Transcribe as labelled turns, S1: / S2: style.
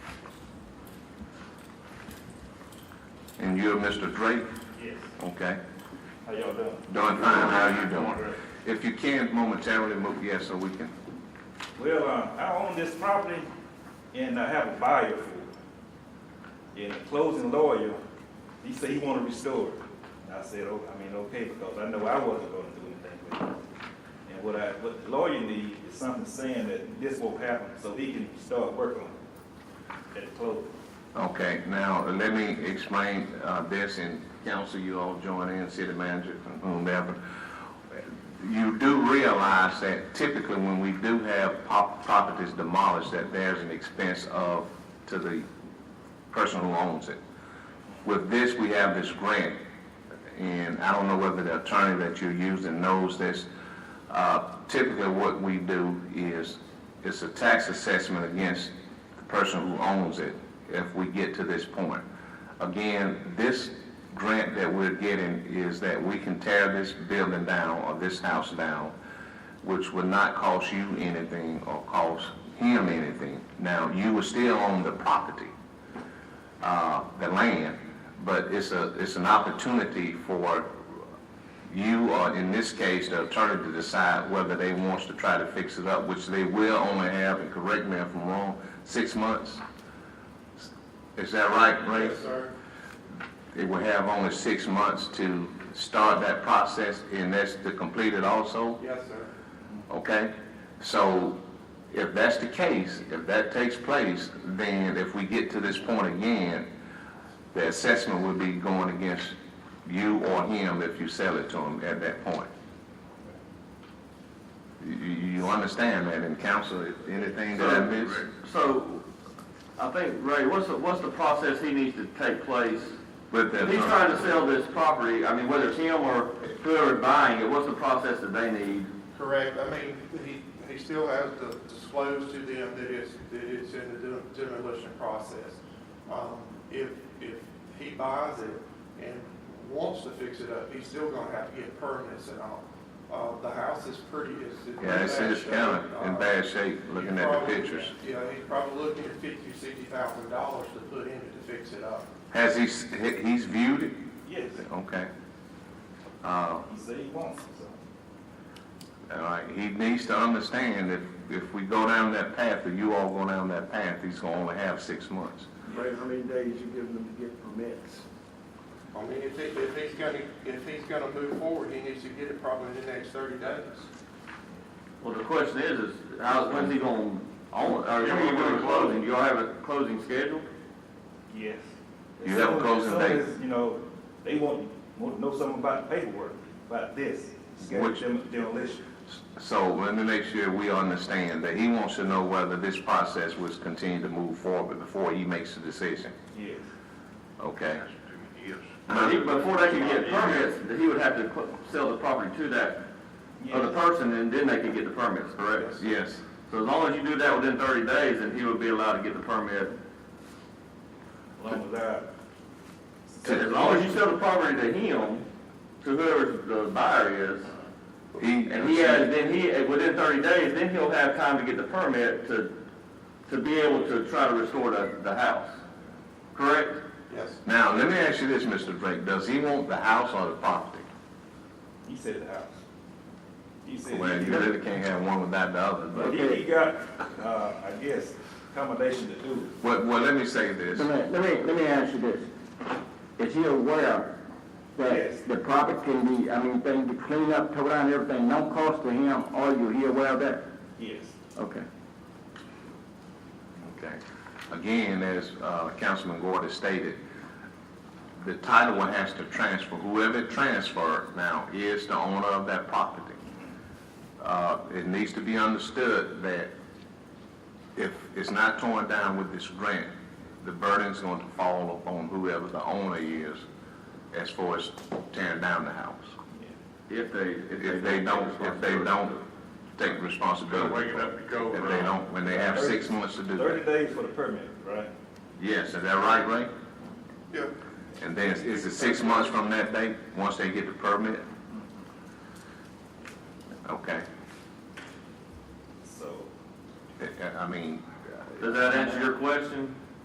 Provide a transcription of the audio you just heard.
S1: And you're Mr. Drake?
S2: Yes.
S1: Okay.
S2: How y'all doing?
S1: Doing fine, how you doing? If you can momentarily move, yes, so we can.
S2: Well, uh, I own this property and I have a buyer for it. And the closing lawyer, he said he wanna restore it. And I said, oh, I mean, okay, because I know I wasn't gonna do anything with it. And what I, what the lawyer need is something saying that this won't happen, so he can start working on it at the closing.
S1: Okay, now, uh, let me explain uh, this, and council, you all join in, city manager, whomever. You do realize that typically when we do have pop- properties demolished, that there's an expense of, to the person who owns it. With this, we have this grant, and I don't know whether the attorney that you're using knows this. Uh, Typically, what we do is, it's a tax assessment against the person who owns it if we get to this point. Again, this grant that we're getting is that we can tear this building down or this house down, which would not cost you anything or cost him anything. Now, you will still own the property uh, the land, but it's a, it's an opportunity for you, or in this case, the attorney to decide whether they wants to try to fix it up, which they will only have, and correct me if I'm wrong, six months? Is that right, Ray? Yes, sir. They will have only six months to start that process, and that's to complete it also?
S3: Yes, sir.
S1: Okay? So if that's the case, if that takes place, then if we get to this point again, the assessment would be going against you or him if you sell it to him at that point. You, you you understand that in council, if anything that I missed?
S3: So, I think, Ray, what's the, what's the process he needs to take place?
S1: With the
S3: If he's
S1: attorney,
S3: trying to sell this property, I mean, whether it's him or whoever buying it, what's the process that they need?
S4: Correct, I mean, he, he still has to disclose to them that it's, that it's in the dem- demolition process. Um, if, if he buys it and wants to fix it up, he's still gonna have to get permits and all. Uh, the house is pretty, it's.
S1: yeah, it's in this county, in
S4: Uh,
S1: bad shape, looking
S4: he's
S1: at the
S4: probably-
S1: pictures.
S4: Yeah, he's probably looking at fifty, sixty thousand dollars to put in it to fix it up.
S1: Has he, s- he- he's viewed it?
S2: Yes,
S1: Okay. Uh,
S2: he said he wants it, so.
S1: All right, he needs to understand if, if we go down that path, or you all go down that path, he's gonna only have six months.
S5: Right, how many days you giving them to get permits?
S4: I mean, if he, if he's gonna, if he's gonna move forward, he needs to get it probably in the next thirty days.
S3: Well, the question is, is how, when's he gonna own, it? or when you gonna close it? You all have a closing schedule?
S2: Yes.
S1: You have a
S2: As soon-
S1: closing
S2: as soon
S1: date?
S2: as, You know, they want, want to know something about the paperwork, about this,
S1: Which-
S2: dem- demolition.
S1: So let me make sure we understand that he wants to know whether this process was continued to move forward before he makes the decision,
S2: Yes,
S1: okay?
S3: But he- Before they can get permits, he would have to cl- sell the property to that
S1: Oh,
S3: other
S2: yes,
S3: person, and then they can get the permits, correct?
S1: Yes,
S3: So as long as you do that within thirty days, then he would be allowed to get the permit.
S2: long as I.
S3: As long as you sell the property to him, to whoever the buyer is,
S1: he,
S3: and he has, then he, within thirty days, then he'll have time to get the permit to, to be able to try to restore the, the house, correct?
S4: Yes.
S1: now, let me ask you this, Mr. Drake, does he want the house or the property?
S2: He said the house. He said,
S1: Well, you really can't have one without the other,
S2: but
S1: but,
S2: he, he got, uh, I guess, accommodation to do.
S1: well, well, let me say this.
S5: Let me, let me, let me ask you this. Is he aware
S2: Yes.
S5: that the property can be, I mean, thing to clean up, tow down everything, no cost to him, or you, he aware of that?
S2: Yes,
S5: Okay.
S1: Okay. Again, as uh, Councilman Gordon stated, the title one has to transfer, whoever transferred now is the owner of that property. Uh, It needs to be understood that if it's not torn down with this grant, the burden's going to fall upon whoever the owner is as far as tearing down the house.
S3: If they,
S1: If they don't, if they don't take responsibility.
S6: Wake it up to go
S1: If they
S6: around.
S1: don't, when they have six months to do that.
S2: thirty days for the permit, right?
S1: Yes, is that right, Ray?
S4: Yeah.
S1: And then, is it six months from that date, once they get the permit? Okay,
S2: So,
S1: I- I mean,
S3: Does that answer your question?